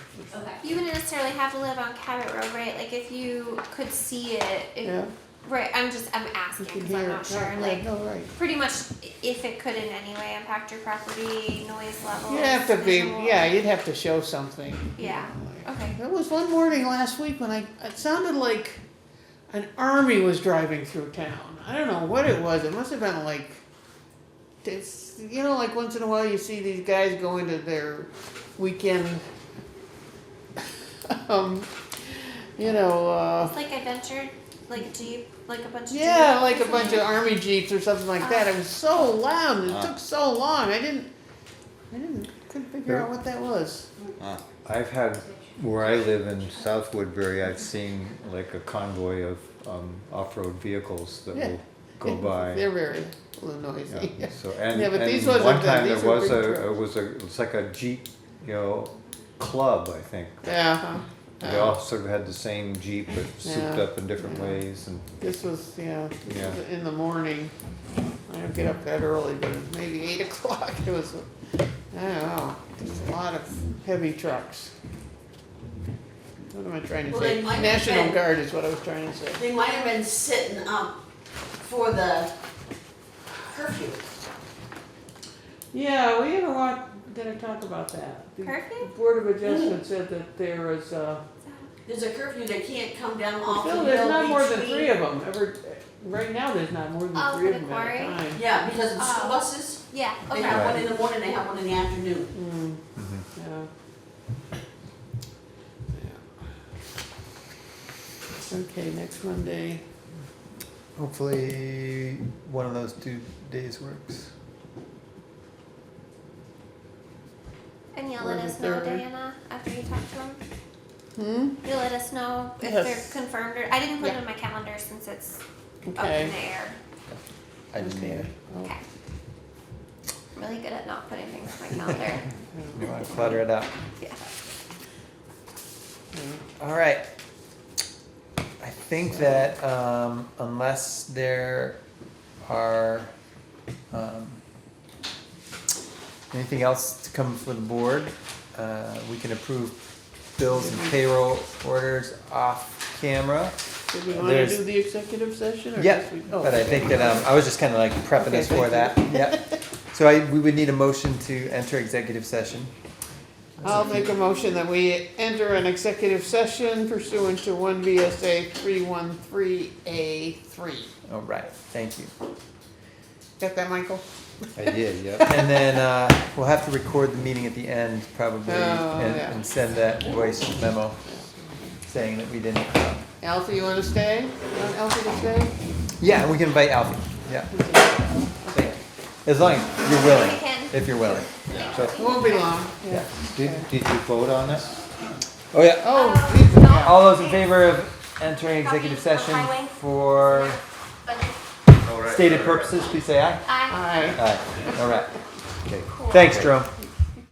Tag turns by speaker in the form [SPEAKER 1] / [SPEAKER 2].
[SPEAKER 1] Okay.
[SPEAKER 2] You wouldn't necessarily have to live on Cabot Road, right? Like if you could see it, if,
[SPEAKER 3] Yeah,
[SPEAKER 2] right? I'm just I'm
[SPEAKER 3] you
[SPEAKER 2] asking
[SPEAKER 3] can
[SPEAKER 2] because I'm
[SPEAKER 3] hear
[SPEAKER 2] not
[SPEAKER 3] it.
[SPEAKER 2] sure.
[SPEAKER 3] Right,
[SPEAKER 2] Like
[SPEAKER 3] right, no, right.
[SPEAKER 2] pretty much, if it could in any way impact your property, noise level.
[SPEAKER 3] You'd have to be, yeah, you'd have to show something.
[SPEAKER 2] Yeah. Okay.
[SPEAKER 3] There was one morning last week when I, it sounded like an army was driving through town. I don't know what it was. It must have been like, it's, you know, like once in a while you see these guys going to their weekend, um, you know, uh,
[SPEAKER 2] It's like adventure, like jeep, like a bunch of
[SPEAKER 3] yeah,
[SPEAKER 2] Jeep.
[SPEAKER 3] like a bunch of army jeeps or something like that. It was so loud. and
[SPEAKER 4] Ah.
[SPEAKER 3] It took so long. I didn't, I didn't, couldn't figure out what that was.
[SPEAKER 4] I've had, where I live in South Woodbury, I've seen like a convoy of um, off-road vehicles that will go
[SPEAKER 3] They're
[SPEAKER 4] by.
[SPEAKER 3] very noisy.
[SPEAKER 4] Yeah, So, and,
[SPEAKER 3] Yeah, but these
[SPEAKER 4] and
[SPEAKER 3] wasn't
[SPEAKER 4] one
[SPEAKER 3] the-
[SPEAKER 4] time there
[SPEAKER 3] these were
[SPEAKER 4] was
[SPEAKER 3] big
[SPEAKER 4] a, it
[SPEAKER 3] trucks.
[SPEAKER 4] was a, it's like a Jeep, you know, club, I think.
[SPEAKER 3] Yeah. huh.
[SPEAKER 4] They all sort of had the same Jeep, but souped
[SPEAKER 3] Oh. Yeah.
[SPEAKER 4] up in different
[SPEAKER 3] Yeah.
[SPEAKER 4] ways and,
[SPEAKER 3] This was, yeah, this
[SPEAKER 4] Yeah.
[SPEAKER 3] was in the morning. I don't get up that early, but it was maybe eight o'clock. It was, I don't know, just a lot of heavy trucks. What am I trying to
[SPEAKER 1] Well,
[SPEAKER 3] say?
[SPEAKER 1] they might have
[SPEAKER 3] National
[SPEAKER 1] been-
[SPEAKER 3] Guard is what I was trying to say.
[SPEAKER 1] They might have been sitting up for the curfew.
[SPEAKER 3] Yeah, we had a lot, gonna talk about that. The
[SPEAKER 2] Curfew?
[SPEAKER 3] Board of Adjustment said that there was, uh,
[SPEAKER 1] There's a curfew, they can't come down off the
[SPEAKER 3] still,
[SPEAKER 1] hill
[SPEAKER 3] there's not more than
[SPEAKER 1] between-
[SPEAKER 3] three of them ever, right now, there's not more
[SPEAKER 2] Oh,
[SPEAKER 3] than three
[SPEAKER 2] for
[SPEAKER 3] of
[SPEAKER 2] the
[SPEAKER 3] them at a
[SPEAKER 2] quarry?
[SPEAKER 3] time.
[SPEAKER 1] Yeah, because of the school
[SPEAKER 2] Oh.
[SPEAKER 1] buses,
[SPEAKER 2] Yeah.
[SPEAKER 1] they
[SPEAKER 2] Okay.
[SPEAKER 1] have one in the morning, they have one in the afternoon.
[SPEAKER 2] Hmm,
[SPEAKER 3] Mm,
[SPEAKER 4] Mhm.
[SPEAKER 3] yeah. Yeah. Okay, next Monday.
[SPEAKER 4] Hopefully, one of those two days works.
[SPEAKER 2] And you'll
[SPEAKER 3] Or
[SPEAKER 2] let
[SPEAKER 3] the
[SPEAKER 2] us know,
[SPEAKER 3] third.
[SPEAKER 2] Diana, after you talk to them.
[SPEAKER 3] Hmm?
[SPEAKER 2] You'll let us know if
[SPEAKER 3] Yes.
[SPEAKER 2] they're confirmed or I didn't put
[SPEAKER 3] Yeah.
[SPEAKER 2] it on my calendar since it's up in
[SPEAKER 3] Okay.
[SPEAKER 2] the air.
[SPEAKER 4] I didn't
[SPEAKER 3] Okay.
[SPEAKER 4] either.
[SPEAKER 3] Oh,
[SPEAKER 2] Okay. I'm really good at not putting things on my calendar.
[SPEAKER 4] You wanna clutter it up?
[SPEAKER 2] yeah.
[SPEAKER 3] yeah.
[SPEAKER 5] All right. I think that um, unless there are um, anything else to come for the board, uh, we can approve bills and payroll orders off camera.
[SPEAKER 3] Did we wanna
[SPEAKER 5] There's-
[SPEAKER 3] do the executive session or?
[SPEAKER 5] Yeah,
[SPEAKER 3] just we- oh,
[SPEAKER 5] but I
[SPEAKER 3] okay.
[SPEAKER 5] think that um, I was just kind of like prepping
[SPEAKER 3] Okay,
[SPEAKER 5] us for that.
[SPEAKER 3] thank
[SPEAKER 5] Yeah. So I, we would need a motion to enter executive session.
[SPEAKER 3] I'll make a motion that we enter an executive session pursuant to one VSA three one three A three.
[SPEAKER 5] All Oh, right. Thank you.
[SPEAKER 3] Got that, Michael?
[SPEAKER 4] I did, yeah.
[SPEAKER 5] And then uh, we'll have to record the meeting at the end probably
[SPEAKER 3] Oh,
[SPEAKER 5] and,
[SPEAKER 3] yeah.
[SPEAKER 5] and send that voice memo saying that we didn't um, come.
[SPEAKER 3] Alfie, you wanna stay? You want Alfie to stay?
[SPEAKER 5] Yeah, and we can invite Alfie. Yeah. As long as you're willing.
[SPEAKER 2] We can.
[SPEAKER 5] If you're willing. So,
[SPEAKER 3] Won't be long.
[SPEAKER 5] yeah.
[SPEAKER 4] Did, did you vote on it?
[SPEAKER 5] Oh, yeah.
[SPEAKER 3] Oh,
[SPEAKER 2] Um,
[SPEAKER 3] Jesus.
[SPEAKER 2] no.
[SPEAKER 5] All those in favor of entering executive
[SPEAKER 2] Copy of
[SPEAKER 5] session
[SPEAKER 2] highway.
[SPEAKER 5] for
[SPEAKER 2] But
[SPEAKER 5] stated purposes, please say aye.
[SPEAKER 2] I
[SPEAKER 3] Aye.
[SPEAKER 5] Aye. All right.
[SPEAKER 4] Okay.
[SPEAKER 5] Thanks, Jerome.